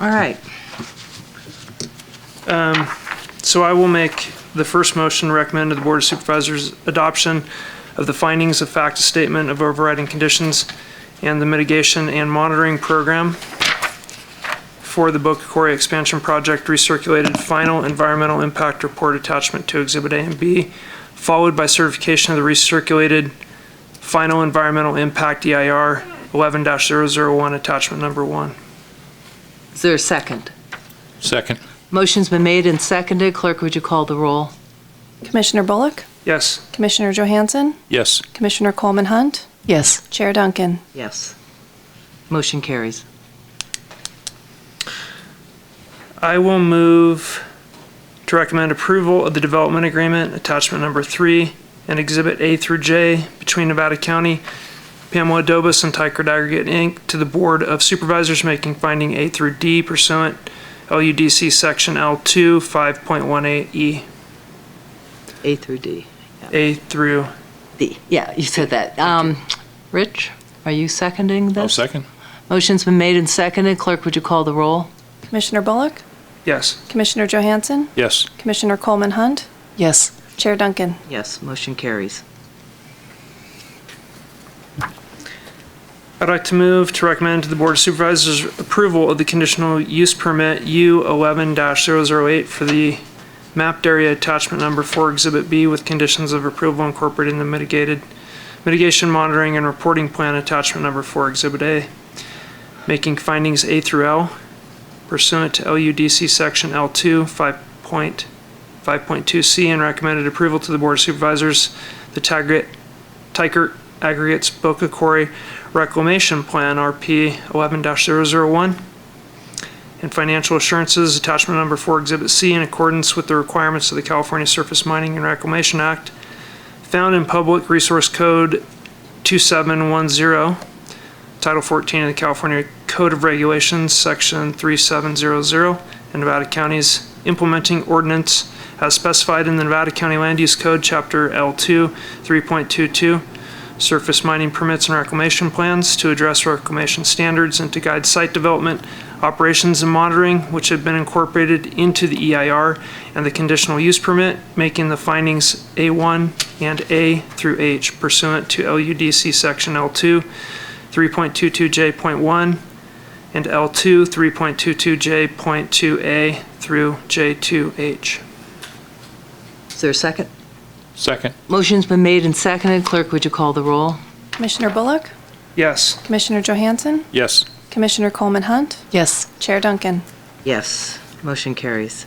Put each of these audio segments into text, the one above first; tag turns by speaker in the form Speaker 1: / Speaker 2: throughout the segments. Speaker 1: All right.
Speaker 2: So I will make the first motion to recommend to the Board of Supervisors adoption of the findings of fact statement of overriding conditions and the mitigation and monitoring program for the Boca Quarry expansion project recirculated final environmental impact report attachment to Exhibit A and B, followed by certification of the recirculated final environmental impact E EIR 11-001 attachment number one.
Speaker 1: Is there a second?
Speaker 3: Second.
Speaker 1: Motion's been made and seconded. Clerk, would you call the roll?
Speaker 4: Commissioner Bullock,
Speaker 2: Yes?
Speaker 4: Commissioner Johansson,
Speaker 3: Yes. Oh,
Speaker 4: Commissioner Coleman Hunt,
Speaker 1: Yes.
Speaker 4: Chair Duncan.
Speaker 1: Yes. Motion carries.
Speaker 2: I will move to recommend approval of the development agreement, attachment number three, and exhibit A through J between Nevada County, Pamela Dobus, and Tykert Aggregate, Inc., to the Board of Supervisors making finding A through D pursuant LUDC Section L2 5.18E,
Speaker 1: A through D.
Speaker 2: E, A through,
Speaker 1: D. Yeah, you said that. Um, Rich, are you seconding
Speaker 3: I'll
Speaker 1: this?
Speaker 3: second.
Speaker 1: Motion's been made and seconded. Clerk, would you call the roll?
Speaker 4: Commissioner Bullock,
Speaker 2: yes.
Speaker 4: Commissioner Johansson,
Speaker 3: Yes.
Speaker 4: Commissioner Coleman Hunt,
Speaker 1: Yes.
Speaker 4: Chair Duncan.
Speaker 1: Yes, motion carries.
Speaker 2: I'd like to move to recommend to the Board of Supervisors approval of the conditional use permit U eleven 8 for the mapped area attachment number four exhibit B with conditions of approval incorporating the mitigated mitigation monitoring and reporting plan attachment number four exhibit A, making findings A through L pursuant to LUDC section L two five point five point two C and recommended approval to the Board of Supervisors, the Taggart, Tykert Aggregates Boca Quarry Reclamation Plan, RP 11-001, and financial assurances, attachment number four, Exhibit C, in accordance with the requirements of the California Surface Mining and Reclamation Act, found in Public Resource Code 2710, Title 14 of the California Code of Regulations, Section 3700, and Nevada County's implementing ordinance as specified in the Nevada County Land Use Code, Chapter L2, 3.22, surface mining permits and reclamation plans to address reclamation standards and to guide site development, operations, and monitoring, which have been incorporated into the EIR and the conditional use permit, making the findings A1 and A through H pursuant to LUDC Section L2, 3.22J.1, and L2, 3.22J.2A through J2H.
Speaker 1: Is there a second?
Speaker 3: Second.
Speaker 1: Motion's been made and seconded. Clerk, would you call the roll?
Speaker 4: Commissioner Bullock,
Speaker 2: Yes.
Speaker 4: Commissioner Johansson,
Speaker 3: Yes.
Speaker 4: Commissioner Coleman Hunt,
Speaker 1: Yes.
Speaker 4: Chair Duncan.
Speaker 1: Yes, motion carries.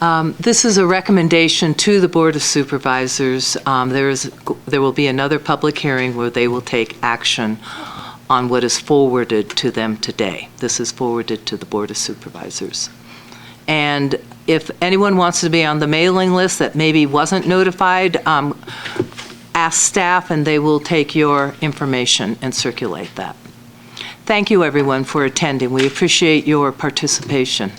Speaker 1: Um, This is a recommendation to the Board of Supervisors. Um, There is, there will be another public hearing where they will take action on what is forwarded to them today. This is forwarded to the Board of Supervisors. And if anyone wants to be on the mailing list that maybe wasn't notified, um, ask staff, and they will take your information and circulate that. Thank you, everyone, for attending. We appreciate your participation.